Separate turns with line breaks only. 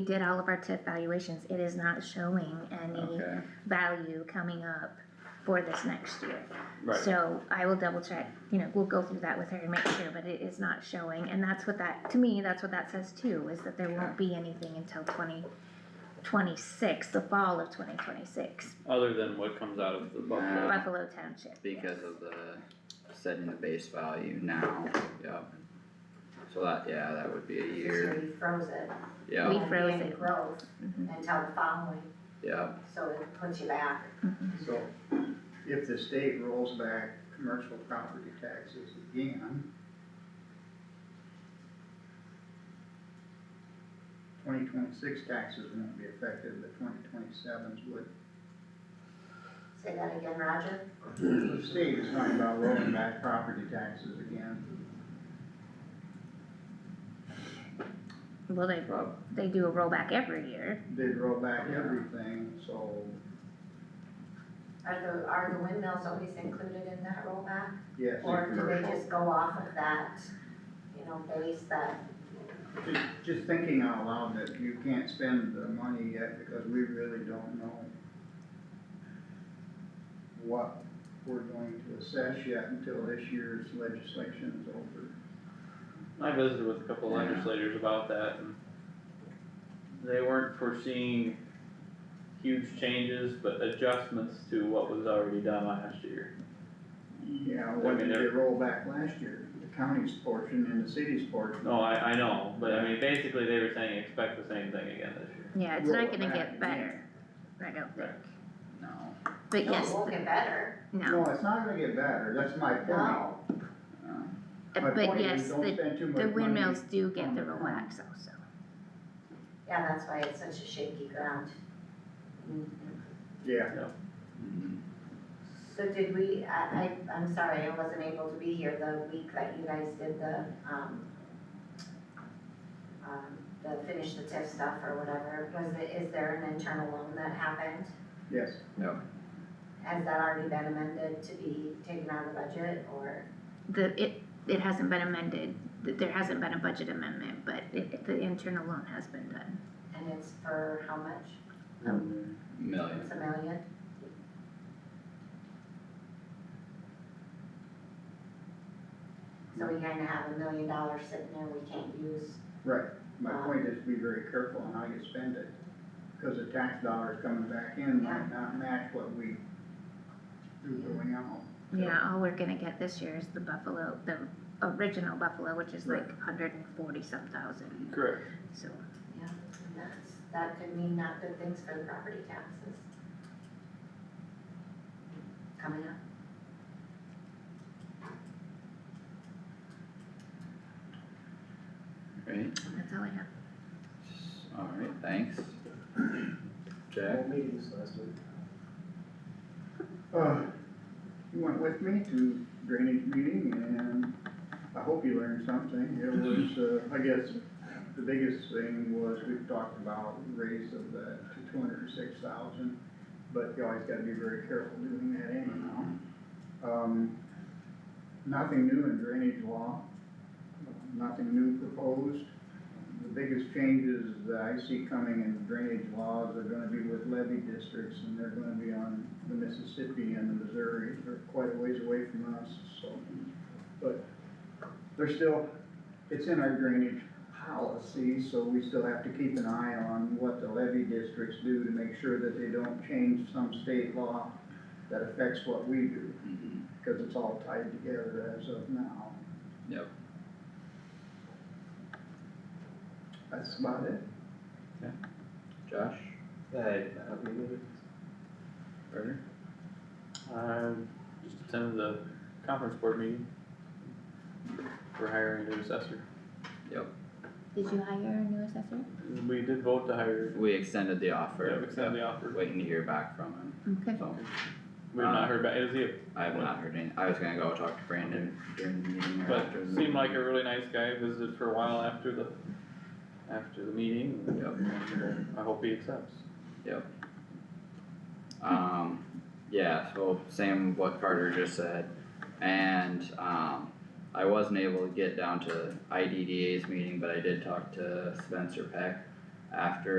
We did all of our TIF valuations, it is not showing any
Okay,
value coming up for this next year.
right,
So I will double check, you know, we'll go through that with her and make sure, but it is not showing, and that's what that, to me, that's what that says too, is that there won't be anything until twenty twenty-six, the fall of twenty twenty-six,
other than what comes out of the Buffalo.
Buffalo Township.
because of the setting the base value now, yep. So that, yeah, that would be a
So
year,
you froze it.
yep,
We
and
froze
then
it.
Growth
Mhm,
until the following,
yep,
so it puts you back.
mhm.
So if the state rolls back commercial property taxes again, twenty twenty-six taxes won't be affected, but twenty twenty-sevens would.
Say that again, Roger?
The state is talking about rolling back property taxes again.
Well, they,
prob-
they do a rollback every year,
They'd roll back everything, so,
Are the, are the windmills always included in that rollback?
yes.
Or do they
commercial.
just go off of that, you know, base that,
Just, just thinking out loud that you can't spend the money yet because we really don't know what we're going to assess yet until this year's legislation is over.
I visited with a couple
Yeah.
legislators about that and they weren't foreseeing huge changes, but adjustments to what was already done last year.
Yeah, what did they roll back last year? The county's portion and the city's portion.
No, I, I know, but I mean, basically they were saying expect the same thing again this year.
yeah, it's not
Roll it
gonna
back
get
again.
better, I don't think,
Right.
no,
but
no,
yes,
it won't get better? Oh,
no,
No, it's not gonna get better, that's my point.
no.
My
Uh, but
point
yes,
is don't
the,
spend too much
the
money.
windmills do get
on
the
the ground.
rollbacks also.
Yeah, that's why it's such a shaky ground. Mm-hmm.
Yeah,
Mhm.
So did we, I, I, I'm sorry, I wasn't able to be here the week that you guys did the, um, um, the finish the TIF stuff or whatever, was it, is there an internal loan that happened?
yes,
Has that already been amended to be taken out of the budget or?
The, it, it hasn't been amended, th- there hasn't been a budget amendment, but it, the internal loan has been done.
And it's for how much?
million,
It's a million? So we kinda have a million dollars sitting there we can't use.
right. My point is be very careful on how you spend it. Cause the tax dollars coming back in might not match what we do going out.
Yeah, all we're gonna get this year is the Buffalo, the original Buffalo, which is like hundred and forty some thousand,
Correct.
so.
And That's, that could mean not good things for the property taxes. Coming up.
right,
That's all I have.
alright, thanks. Jack,
All meetings last week.
Uh, you went with me to drainage meeting and I hope you learned something. It was, uh, I guess, the biggest thing was we've talked about raise of the to two hundred and six thousand, but you always gotta be very careful doing that anyhow. Um, nothing new in drainage law, nothing new proposed. The biggest changes that I see coming in drainage laws are gonna be with levy districts, and they're gonna be on the Mississippi and the Missouri, they're quite a ways away from us, so. But they're still, it's in our drainage policy, so we still have to keep an eye on what the levy districts do to make sure that they don't change some state law that affects what we do,
Mhm.
because it's all tied together as of now.
Yep.
That's about it.
Josh,
Hey. Happy meetings.
Carter,
I Um, just attended the conference board meeting for hiring a new assessor.
Did you hire a new assessor?
We did vote to hire,
we extended the offer.
yeah, extend the offer.
We're Waiting to hear back from him,
Okay,
so
We've not heard back, it was you.
I have not heard any, I was gonna go talk to Brandon during the meeting or
But
after. the
seemed like
meeting.
a really nice guy, visited for a while after the, after the meeting. and I hope he accepts.
Um, yeah, so same what Carter just said, and, um, I wasn't able to get down to IDDA's meeting, but I did talk to Spencer Peck. after